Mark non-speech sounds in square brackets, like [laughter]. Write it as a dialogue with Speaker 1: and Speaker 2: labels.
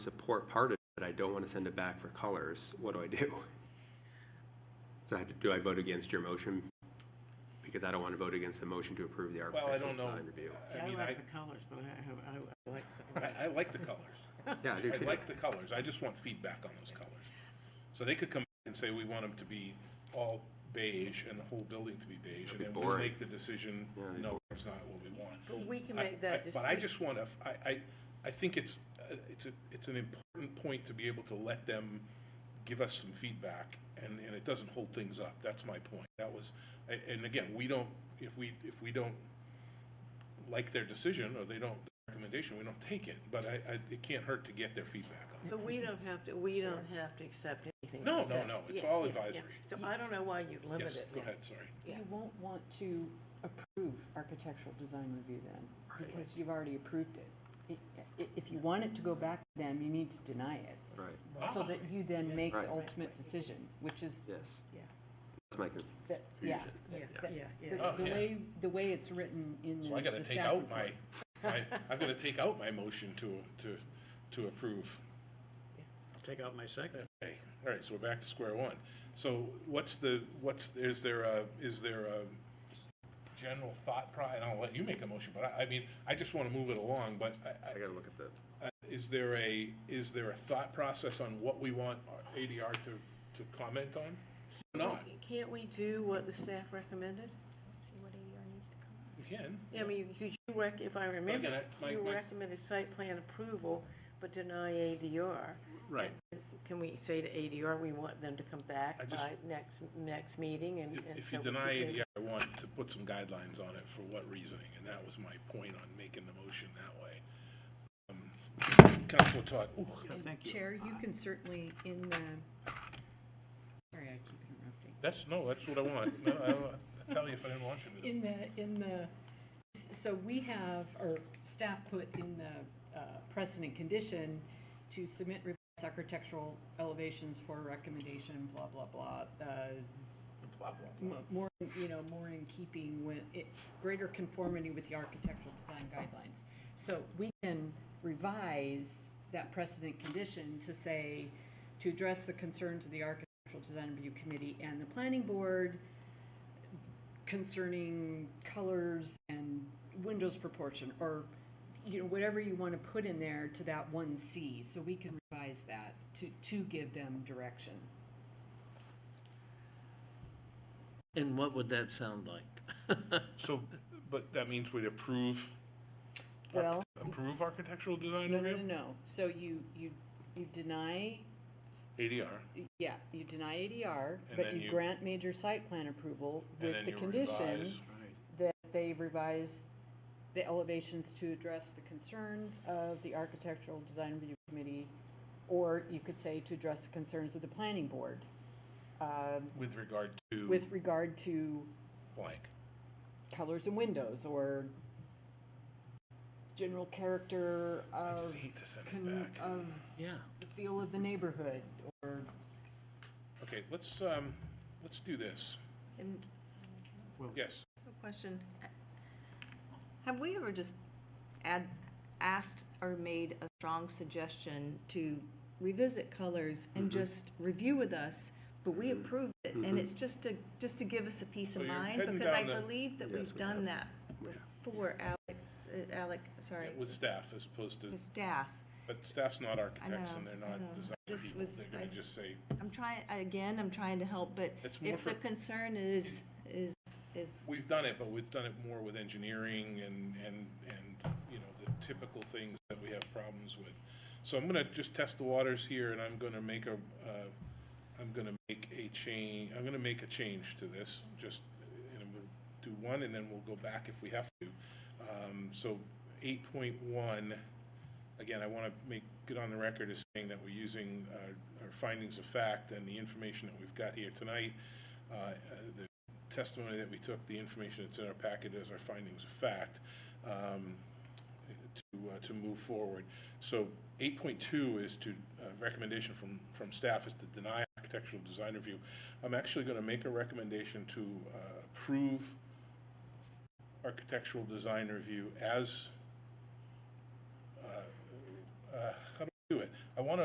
Speaker 1: support part of it, I don't want to send it back for colors, what do I do? So I have to, do I vote against your motion? Because I don't want to vote against the motion to approve the
Speaker 2: I
Speaker 1: architectural
Speaker 2: don't know.
Speaker 1: design review.
Speaker 2: I
Speaker 3: I
Speaker 2: mean, I,
Speaker 3: like the colors, but I, have- I, I like,
Speaker 2: I, I like the colors.
Speaker 1: Yeah, I do
Speaker 2: I
Speaker 1: too.
Speaker 2: like the colors. I just want feedback on those colors. So they could come and say, we want them to be all beige and the whole building to be beige. And
Speaker 1: be
Speaker 2: then we'll
Speaker 1: boring.
Speaker 2: make the decision,
Speaker 1: it'd be
Speaker 2: no, it's not what we want.
Speaker 4: But we can
Speaker 2: I-
Speaker 4: make that
Speaker 2: I- But I
Speaker 4: decision.
Speaker 2: just want to, I, I, I think it's, uh, it's, a- it's an important point to be able to let them give us some feedback and, and it doesn't hold things up. That's my point. That was, a- and again, we don't, if we, if we don't like their decision or they don't, recommendation, we don't take it, but I, I, it can't hurt to get their feedback on it.
Speaker 4: [laughs] So we don't have to, we don't have to accept anything.
Speaker 2: No,
Speaker 4: you
Speaker 2: no,
Speaker 4: say.
Speaker 2: no, it's
Speaker 4: Yeah,
Speaker 2: all
Speaker 4: yeah, yeah.
Speaker 2: advisory.
Speaker 4: So I don't know why you limit it.
Speaker 2: Yes, go
Speaker 4: now.
Speaker 2: ahead, sorry.
Speaker 4: Yeah.
Speaker 5: You won't want to approve architectural design review then, because you've already approved it. I- i- If you want it to go back to them, you need to deny it,
Speaker 1: Right,
Speaker 5: so that you then make
Speaker 1: Right.
Speaker 5: the ultimate decision, which is,
Speaker 1: yes.
Speaker 4: Yeah.
Speaker 1: That's my, con-
Speaker 5: that- yeah.
Speaker 1: Confusion.
Speaker 4: Yeah,
Speaker 5: That-
Speaker 4: yeah,
Speaker 5: The
Speaker 4: yeah.
Speaker 2: Oh,
Speaker 5: the
Speaker 2: yeah.
Speaker 5: way, the way it's written in the
Speaker 2: So I gotta
Speaker 5: Mm, the
Speaker 2: take
Speaker 5: staff
Speaker 2: out my,
Speaker 5: report. [laughs]
Speaker 2: my, I've gotta take out my motion to, to, to approve.
Speaker 3: I'll take out my second.
Speaker 2: Okay, all right, so we're back to square one. So what's the, what's, is there a, is there a general thought pro, and I'll let you make a motion, but I, I mean, I just wanna move it along, but I, I,
Speaker 1: I gotta look at the,
Speaker 2: Uh, Is there a, is there a thought process on what we want our ADR to, to comment on? Not,
Speaker 4: Can't we do what the staff recommended?
Speaker 6: see what ADR needs to come.
Speaker 2: we can.
Speaker 4: Yeah, I mean, you- you, rec, if I remember,
Speaker 2: again, I- my-
Speaker 4: you
Speaker 2: my-
Speaker 4: recommended site plan approval, but deny ADR.
Speaker 2: Right,
Speaker 4: Can we say to ADR, we want them to come
Speaker 2: I
Speaker 4: back
Speaker 2: just-
Speaker 4: by next, next meeting and?
Speaker 2: if,
Speaker 4: and
Speaker 2: if you
Speaker 4: so we
Speaker 2: deny
Speaker 4: keep
Speaker 2: ADR,
Speaker 4: it-
Speaker 2: I want to put some guidelines on it for what reasoning, and that was my point on making the motion that way. Um, Counselor Todd, ooh,
Speaker 3: Thank you.
Speaker 5: Chair, you can certainly in the, sorry, I keep interrupting.
Speaker 2: that's, no, that's what I want. No, I- I'll tell you if I didn't want you to.
Speaker 5: In the, in the, so we have, or staff put in the uh, precedent condition to submit revised architectural elevations for recommendation, blah, blah, blah. uh, mo- More, you know, more in keeping with, it- greater conformity with the architectural design guidelines. So we can revise that precedent condition to say, to address the concerns of the Architectural Design Review Committee and the Planning Board, concerning colors and windows proportion, or, you know, whatever you want to put in there to that one C, so we can revise that to, to give them direction.
Speaker 7: And what would that sound like? [laughs]
Speaker 2: So, but that means we'd approve,
Speaker 5: Well,
Speaker 2: approve architectural design
Speaker 5: no, no, no,
Speaker 2: review?
Speaker 5: no, so you, you, you deny,
Speaker 2: ADR,
Speaker 5: yeah, you deny ADR,
Speaker 2: And
Speaker 5: but
Speaker 2: then
Speaker 5: you
Speaker 2: you-
Speaker 5: grant major site plan approval
Speaker 2: and
Speaker 5: with
Speaker 2: then
Speaker 5: the
Speaker 2: you
Speaker 5: condition
Speaker 2: revise.
Speaker 5: that they revise the elevations to address the concerns of the Architectural Design Review Committee, or you could say to address the concerns of the planning board, um,
Speaker 2: With regard to
Speaker 5: with regard to
Speaker 2: blank.
Speaker 5: colors and windows, or general character
Speaker 2: I
Speaker 5: of,
Speaker 2: just hate to send it
Speaker 5: con-
Speaker 2: back.
Speaker 5: of
Speaker 7: Yeah.
Speaker 5: the feel of the neighborhood, or
Speaker 2: Okay, let's, um, let's do this.
Speaker 8: And
Speaker 2: Yes,
Speaker 8: a question, have we ever just add, asked or made a strong suggestion to revisit colors and
Speaker 2: Mm-hmm.
Speaker 8: just review with us, but we approved it, and it's just to, just to give us a peace
Speaker 2: So
Speaker 8: of
Speaker 2: Mm-hmm. you're
Speaker 8: mind?
Speaker 2: heading
Speaker 8: Because I
Speaker 2: down the-
Speaker 8: believe that
Speaker 1: Yes,
Speaker 8: we've
Speaker 1: we
Speaker 8: done
Speaker 1: have.
Speaker 8: that before, Alex, uh, Alec, sorry,
Speaker 2: with staff as opposed to,
Speaker 8: with staff.
Speaker 2: but staff's not architects
Speaker 8: know,
Speaker 2: and they're
Speaker 8: I
Speaker 2: not
Speaker 8: know.
Speaker 2: design
Speaker 8: Just
Speaker 2: people.
Speaker 8: was-
Speaker 2: They're gonna
Speaker 8: I-
Speaker 2: just say,
Speaker 8: I'm trying, again, I'm trying to help, but
Speaker 2: It's more
Speaker 8: if the
Speaker 2: for-
Speaker 8: concern is, is, is
Speaker 2: we've done it, but we've done it more with engineering and, and, and, you know, the typical things that we have problems with. So I'm gonna just test the waters here and I'm gonna make a, uh, I'm gonna make a change, I'm gonna make a change to this, just, and we'll do one and then we'll go back if we have to. Um, so eight point one, again, I want to make good on the record as saying that we're using uh, our findings of fact and the information that we've got here tonight, uh, uh, the testimony that we took, the information that's in our packet as our findings of fact, um, to, uh, to move forward. So eight point two is to, uh, recommendation from, from staff is to deny architectural design review. I'm actually going to make a recommendation to uh, approve architectural design review as, uh, uh, how do